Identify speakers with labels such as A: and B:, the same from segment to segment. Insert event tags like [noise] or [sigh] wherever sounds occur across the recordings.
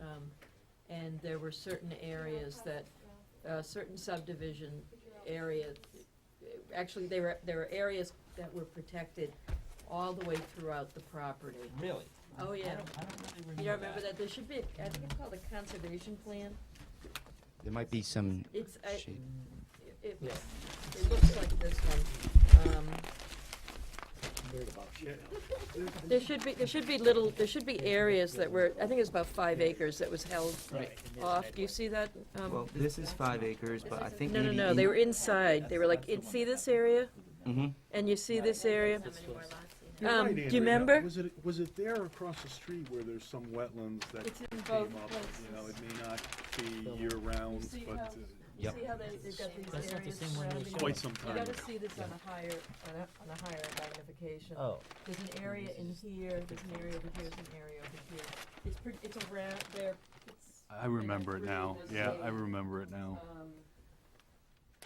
A: Um, and there were certain areas that, uh, certain subdivision area, actually, there were, there were areas that were protected all the way throughout the property.
B: Really?
A: Oh, yeah.
B: I don't, I don't really remember
A: You don't remember that? There should be, I think it's called a conservation plan.
C: There might be some
A: It's, uh, I,
C: shape.
A: it,
B: Yeah.
A: it looks like this one. Um, There should be, there should be little, there should be areas that were, I think it's about five acres that was held
B: Right.
A: off. Do you see that? um,
C: Well, this is five acres, but I think
A: No,
C: maybe.
A: no, no, they were inside. They were like, in- see this area?
B: Mm-hmm.
C: hmm
A: And you see this area?
D: How many more lots you have?
E: You're
A: Um,
E: right,
A: do you
E: Andrea.
A: remember?
E: Was it, was it there across the street where there's some wetlands that
A: It's in
E: came
A: both
E: up? You know, it
A: places.
E: may not be year-round,
A: See
E: but
A: how-
E: uh,
C: Yep.
A: See how they, they've got these
B: That's not the
A: areas
B: same one we
A: surrounding
B: saw.
A: it?
E: quite some
A: You
E: time ago.
A: gotta see this on a higher, on a, on a higher magnification.
B: Oh,
A: There's an area in here, there's an area over here, there's an area over here. It's pretty, it's around there, it's,
E: I remember it now,
A: Really
E: yeah,
A: does
E: I
A: say-
E: remember it now.
A: um.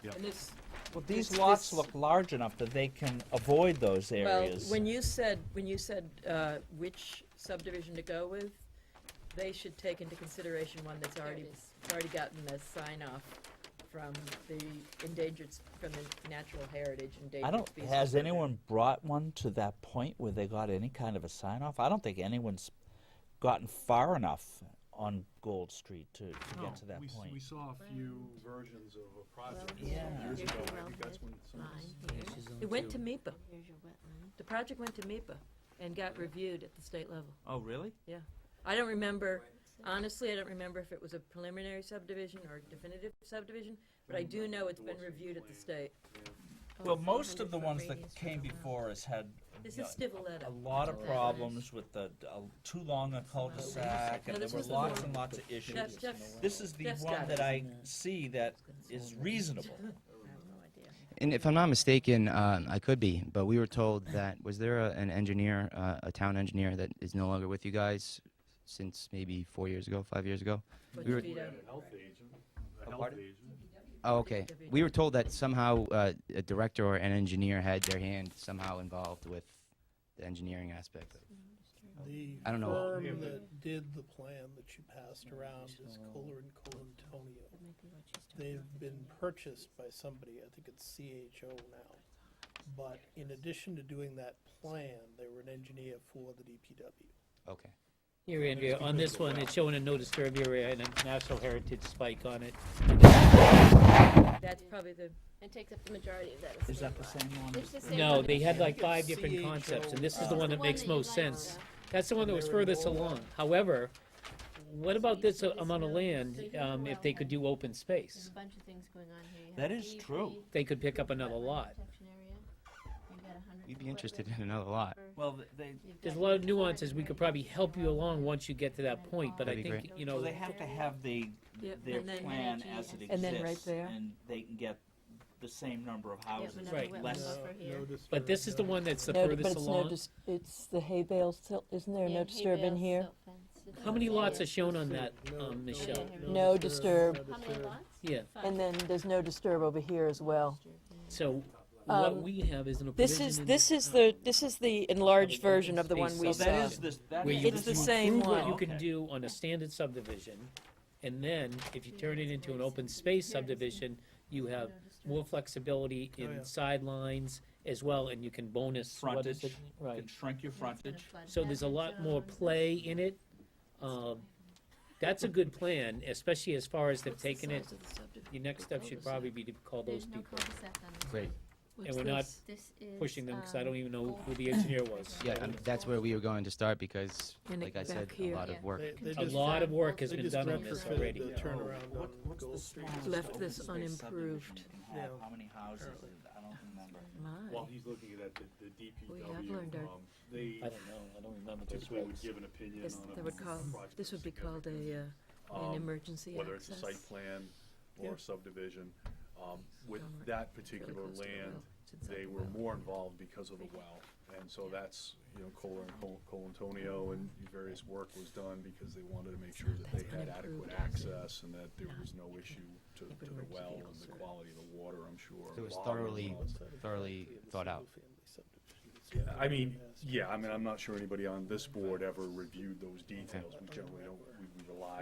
E: Yep.
A: And it's,
B: well, these
A: This-
B: lots
A: this-
B: look large enough that they can avoid those
A: Well,
B: areas.
A: when you said, when you said uh, which subdivision to go with, they should take into consideration one that's
D: There
A: already,
D: it is.
A: already gotten the sign off from the endangered, s- from the natural heritage endangered.
B: I don't,
A: species
B: has
A: program.
B: anyone brought one to that point where they got any kind of a sign off? I don't think anyone's gotten far enough on Gold Street to, to get to that
E: we,
B: point.
E: saw a few versions of a project
D: Well,
B: Yeah.
E: years
D: here's
E: ago,
D: your
E: I think that's when
D: wellhead
E: some of this-
D: Line here,
A: It went to MIPA.
D: here's your wetland.
A: The project went to MIPA and got reviewed at the state level.
B: Oh, really?
A: I don't remember, honestly, I don't remember if it was a preliminary subdivision or definitive subdivision, but I do know it's been reviewed at the state. Oh,
D: Oh,
B: Well, most of the
D: 400
B: ones
D: foot
B: that
D: radius
B: came
D: around.
B: before us had
A: This
B: you
A: is
B: know,
A: Stivaleta.
B: a lot of
D: That's what it
B: problems with the, uh, too long a cul-de-sac,
A: No,
B: and there
A: this
B: were
A: was the
B: lots
A: one-
B: and lots of issues.
A: Jeff, Jeff's,
B: This is the
A: Jeff's
B: one
A: got it.
B: that I see that is reasonable.
A: I have no idea.
C: And if I'm not mistaken, um, I could be, but we were told that, was there a, an engineer, uh, a town engineer that is no longer with you guys since maybe four years ago, five years ago?
A: Put
C: We
A: your
C: were-
A: feet up.
E: A health agent, a
B: Oh,
E: health
B: pardon?
E: agent.
C: Oh, okay. We were told that somehow uh, a director or an engineer had their hand somehow involved with the engineering aspect. of-
F: The
C: I don't know.
F: firm
E: Yeah, but-
F: that did the plan that you passed around is Kohler and Colantonio.
D: That might be what she's talking
F: They've
D: about.
F: been purchased by somebody, I think it's CHO now. But in addition to doing that plan, they were an engineer for the DPW.
C: Okay.
G: Here, Andrea, on this one, it's showing a no disturb area and a national heritage spike on it.
A: That's probably the,
D: And takes up the majority of that.
B: [laughs] Is that the same one?
D: It's the same.
G: No,
D: one
G: they
D: that-
G: had like
F: I think
G: five
F: it's
G: different concepts, and this is
F: CHO.
G: the one
D: The
G: that makes
D: you
G: most
D: liked,
G: sense.
D: uh,
G: That's the one that was furthest along. However, what about this a- amount of land, um, if they could do open
D: There's a
G: space?
D: bunch of things going on here. You
B: That
D: have
B: is
D: DEP,
B: true.
G: They could pick up another
D: wetland
G: lot.
D: protection area. You've got a hundred
C: We'd be
D: foot
C: interested
D: river.
C: in another lot.
B: Well, they,
D: You've
G: There's a
D: got
G: lot
D: your
G: of
D: authority
G: nuances. We could
D: areas,
G: probably
D: your
G: help you
D: wetland.
G: along once you get to that point, but I
C: That'd be
G: think,
D: great.
G: you
B: so
G: know,
B: they have to have the,
A: Yep,
B: their
A: and then-
B: plan as it
A: And then right
B: exists,
A: there.
B: and they can get the same number of
D: Yeah,
B: houses,
D: we know
G: Right.
D: the wetland
B: less.
D: buffer here.
E: No
G: but this is the
E: disturbance.
G: one that's the
A: No, but
G: furthest
A: it's no,
G: along.
A: dis- it's the hay bale, sil- isn't there
D: Yeah,
A: no
D: hay
A: disturb in
D: bales,
A: here?
D: silt fence. It's
G: How many
D: all there.
G: lots are shown on that,
E: No,
G: um,
E: no,
G: Michelle?
A: No disturb.
D: How many lots?
G: Yeah.
D: Five.
A: And then there's no disturb over here as well.
G: So
A: Um,
G: what we have is an
A: This
G: provision
A: is,
G: in
A: this is the, this is the enlarged version of the one
G: Space
A: we
B: So that
A: saw.
B: is this, that
G: Where
B: is
G: you
A: It's
B: this
A: the
B: one.
A: same
G: prove what
A: one.
G: you can
B: Okay.
G: do on a standard subdivision, and then if you turn it into an open space subdivision, you have more flexibility
F: Oh, yeah.
G: in sidelines as well, and you can bonus, what is it?
B: Frontage. You
G: Right,
B: can shrink your frontage.
G: so there's a lot more play in it. Um, that's a good plan, especially as far as they've taken it, your next step should probably be to call
D: There's
G: those
D: no
G: people,
D: cul-de-sac on this.
C: Great.
G: and we're not
D: This is.
G: pushing them, cause I
D: um,
G: don't even know who the engineer was.
C: Yeah, um, that's where we were going to start because,
A: And it
C: like I
A: back
C: said, a
A: here.
C: lot of work.
F: They- they
D: A
G: A
F: just-
G: lot of work has
F: they
G: been
F: just
G: done on this
F: retrofitted
G: already.
F: The turnaround
B: What-
F: on
B: what's the
F: Gold Street.
B: smallest
A: Left
B: open
A: this
B: space subdivision
A: unimproved.
B: you can have?
F: Yeah.
B: How many houses? is it? I don't remember.
E: While he's looking at that, the, the DPW,
A: learned our-
E: um, they
G: I don't know, I don't remember those
E: typically would
G: regs.
E: give an opinion
A: This,
E: on a
A: they would call,
E: project
A: this
E: of
A: would be called
E: significance.
A: a, uh, an
E: Um,
A: emergency
E: whether it's a
A: access.
E: site plan or
F: Yeah.
E: a subdivision. Um, with
A: Don't worry,
E: that
A: really
E: particular
A: close to the
E: land,
A: well. It's inside
E: they
A: the
E: were
A: well.
E: more involved because of the well. And so that's, you know, Kohler and Col- Colantonio and various work was done because they wanted to make sure that they had adequate access and that there was no issue to,
A: It would
E: to the
A: work to
E: well
A: be
E: and the
A: closer.
E: quality of the water, I'm sure.
C: It was
E: log and
C: thoroughly-
E: all that
C: Thoroughly thought out.
E: I mean, yeah, I mean, I'm not sure anybody on this board ever reviewed those details. We generally don't, we we rely